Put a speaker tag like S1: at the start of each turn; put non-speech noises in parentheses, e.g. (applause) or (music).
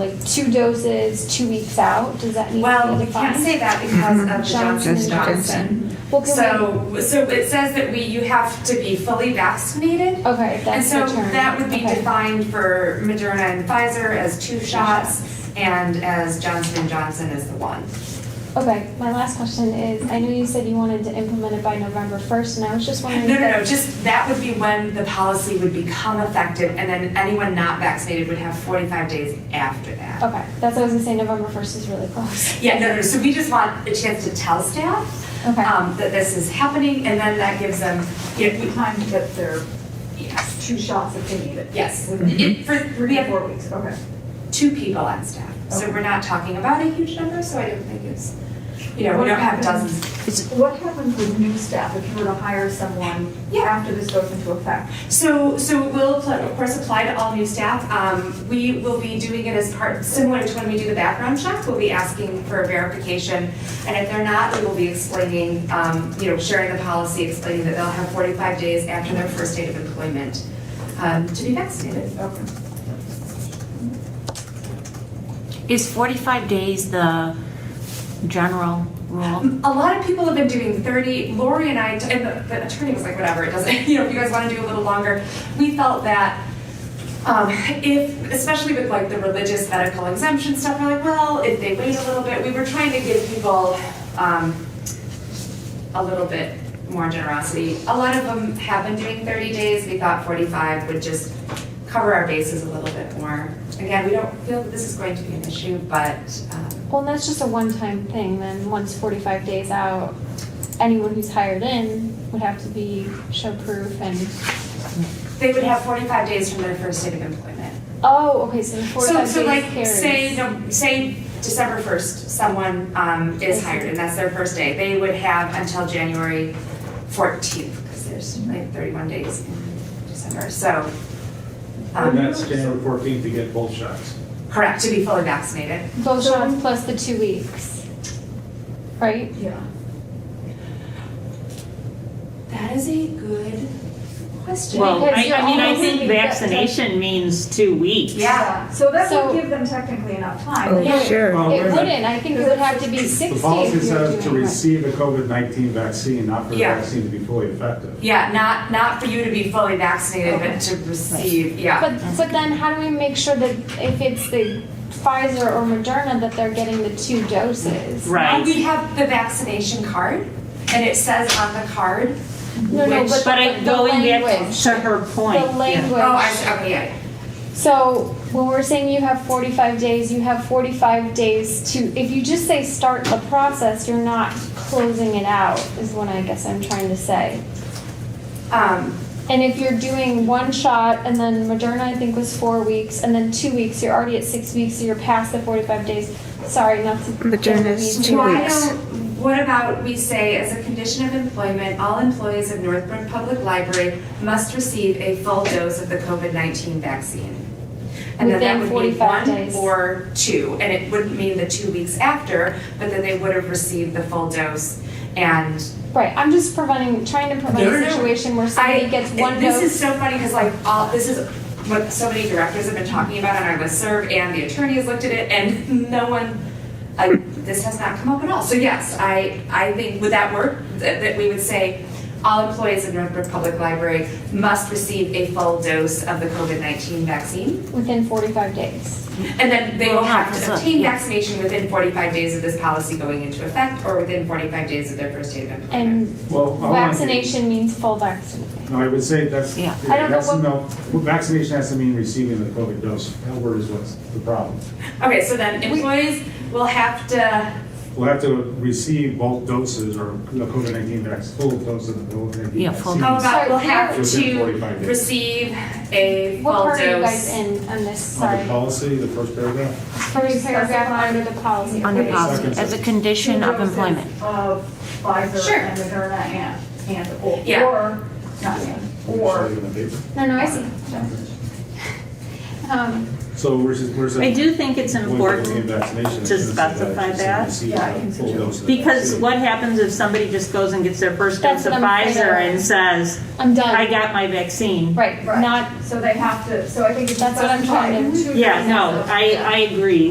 S1: like two doses, two weeks out? Does that need to
S2: Well,
S1: be
S2: we can't
S1: defined?
S2: say that because of the Johnson and
S1: Johnson and
S2: Johnson.
S1: Well, can
S2: So, so it says that we, you have to be fully vaccinated.
S1: we, okay,
S2: And
S1: that's the
S2: so
S1: term.
S2: that would be
S1: Okay.
S2: defined for Moderna and Pfizer as two shots and as Johnson and Johnson as the one.
S1: Okay, my last question is, I know you said you wanted to implement it by November first, and I was just
S2: No,
S1: wondering.
S2: no,
S1: if
S2: no, just that would be when the policy would become effective and then anyone not vaccinated would have 45 days after that.
S1: that- Okay, that's what I was gonna say, November first is really close. (laughs)
S2: Yeah, no, no, so we just want a chance to tell staff
S1: Okay,
S2: um, that this is happening, and then that gives them, you know,
S3: time to get their
S2: we- yes,
S3: two shots if they need it.
S2: yes.
S3: Within
S2: It- For, we
S3: Three to
S2: have
S3: four weeks, okay.
S2: two people on staff, so
S3: Okay.
S2: we're not talking about a huge number, so I don't think it's, you know, we don't have dozens.
S3: What happens with new staff if you were to hire someone
S2: Yeah.
S3: after this goes into effect?
S2: So, so we'll, apply- of course, apply to all new staff. Um, We will be doing it as part, similar to when we do the background check, we'll be asking for a verification. And if they're not, we will be explaining, um, you know, sharing the policy, explaining that they'll have 45 days after their first date of employment um, to be vaccinated.
S3: Okay.
S4: Is 45 days the general rule?
S2: Um, A lot of people have been doing 30. Lori and I, and the, the attorney was like, whatever, it doesn't, (laughs) you know, if you guys want to do a little longer. We felt that um, if, especially with like the religious medical exemption stuff, we're like, well, if they wait a little bit, we were trying to give people um, a little bit more generosity. A lot of them have been doing 30 days. We thought 45 would just cover our bases a little bit more. Again, we don't feel that this is going to be an issue, but um,
S1: well, and that's just a one-time thing, then, once forty-five days out, anyone who's hired in would have to be show proof and,
S2: They would have 45 days from their first day of employment.
S1: oh, okay, so the
S2: So,
S1: forty-five days
S2: so like,
S1: carries.
S2: say, no, say December 1st, someone um, is hired, and that's their first day. They would have until January 14th, because there's like 31 days in December, so. um,
S5: And that's January 14th to get both shots.
S2: Correct, to be fully vaccinated.
S1: Both shots plus the two weeks, right?
S3: Yeah.
S2: That is a good question.
S4: Well,
S1: Because
S4: I,
S1: you're
S4: I mean, I
S1: almost
S4: think
S1: leaving that-
S4: vaccination means two weeks.
S2: Yeah,
S3: So that
S1: So-
S3: would give them technically enough time.
S6: Oh,
S1: Yeah.
S6: sure.
S5: Well, wait a
S1: It
S5: minute.
S1: wouldn't, I think it would have to be sixty
S5: The
S1: if
S5: policy
S1: you were
S5: says to
S1: doing it.
S5: receive a COVID-19 vaccine, not for the
S2: Yeah.
S5: vaccine to be fully effective.
S2: yeah, not, not for you to be fully vaccinated, but to receive, yeah.
S1: But, but then how do we make sure that if it's the Pfizer or Moderna, that they're getting the two doses?
S2: Now
S4: Right.
S2: We have the vaccination card, and it says on the card
S1: No, no,
S2: Which-
S1: but,
S4: But I,
S1: but the
S4: going back
S1: language,
S4: to her point.
S1: the language.
S2: Oh, I see, okay, yeah, yeah.
S1: So when we're saying you have forty-five days, you have forty-five days to, if you just say start the process, you're not closing it out, is what I guess I'm trying to say.
S2: Um,
S1: And if you're doing one shot and then Moderna, I think was four weeks, and then two weeks, you're already at six weeks, so you're past the forty-five days. Sorry, not to.
S6: Moderna's
S1: Yes.
S6: Two
S2: why
S6: weeks.
S2: don't, what about we say, as a condition of employment, all employees of Northbrook Public Library must receive a full dose of the COVID-19 vaccine? And then that
S1: Within
S2: would be
S1: 45
S2: one
S1: days.
S2: or two, and it wouldn't mean the two weeks after, but then they would have received the full dose. And
S1: Right, I'm just preventing, trying to prevent
S2: No, no,
S1: a
S2: no.
S1: situation where
S2: I,
S1: somebody gets one
S2: this is
S1: dose.
S2: so funny, because like, all, this is what so many directors have been talking about on our listserv, and the attorney has looked at it, and (laughs) no one, like, this has not come up at all. So yes, I, I think, would that work? That, that we would say, all employees of Northbrook Public Library must receive a full dose of the COVID-19 vaccine?
S1: Within forty-five days.
S2: And then they will have to
S4: Well,
S2: obtain
S4: yeah.
S2: vaccination within 45 days of this policy going into effect, or within 45 days of their first day of employment.
S1: And
S5: Well, I want to-
S1: vaccination means full vaccination.
S5: No, I would say that's,
S4: Yeah.
S1: I don't know
S5: that's,
S1: what-
S5: no, vaccination has to mean receiving the COVID dose. That word is what's the problem.
S2: Okay, so then employees will have to
S5: We'll have to receive both doses or the COVID-19 vaccine, full dose of the COVID-19 vaccine.
S4: Yeah, full
S2: How
S4: dose.
S1: Oh,
S2: about we'll have
S5: Within
S2: to
S5: 45 days.
S2: receive a
S1: What
S2: full
S1: part are you guys
S2: dose?
S1: in on this,
S5: On
S1: sorry?
S5: the policy, the first paragraph,
S1: First paragraph under the policy.
S4: Under
S1: okay.
S4: policy, as a condition
S3: Two
S4: of
S3: doses
S4: employment.
S3: Of Pfizer
S2: Sure.
S3: and Moderna and, and, or,
S2: Yeah.
S3: or, not and,
S5: we'll
S3: or
S5: show you in the paper.
S1: No, no, I see. (laughs) Um,
S5: So we're just, we're just.
S4: I do think it's
S5: When
S4: important,
S5: we're looking at vaccinations,
S4: to
S5: it's just that
S4: specify
S5: it's
S4: that.
S5: received
S3: Yeah, I
S5: a
S3: can
S5: full
S3: see that.
S5: dose of the
S4: because
S5: vaccine.
S4: what happens if somebody just goes and gets their first dose
S1: That's
S4: of
S1: what I'm afraid
S4: Pfizer
S1: of.
S4: and says,
S1: I'm done.
S4: I got my vaccine?
S1: Right,
S3: Right.
S1: not
S3: So they have to, so I think it's.
S1: That's what I'm trying to-
S3: specified.
S4: Yeah, no, I, I agree.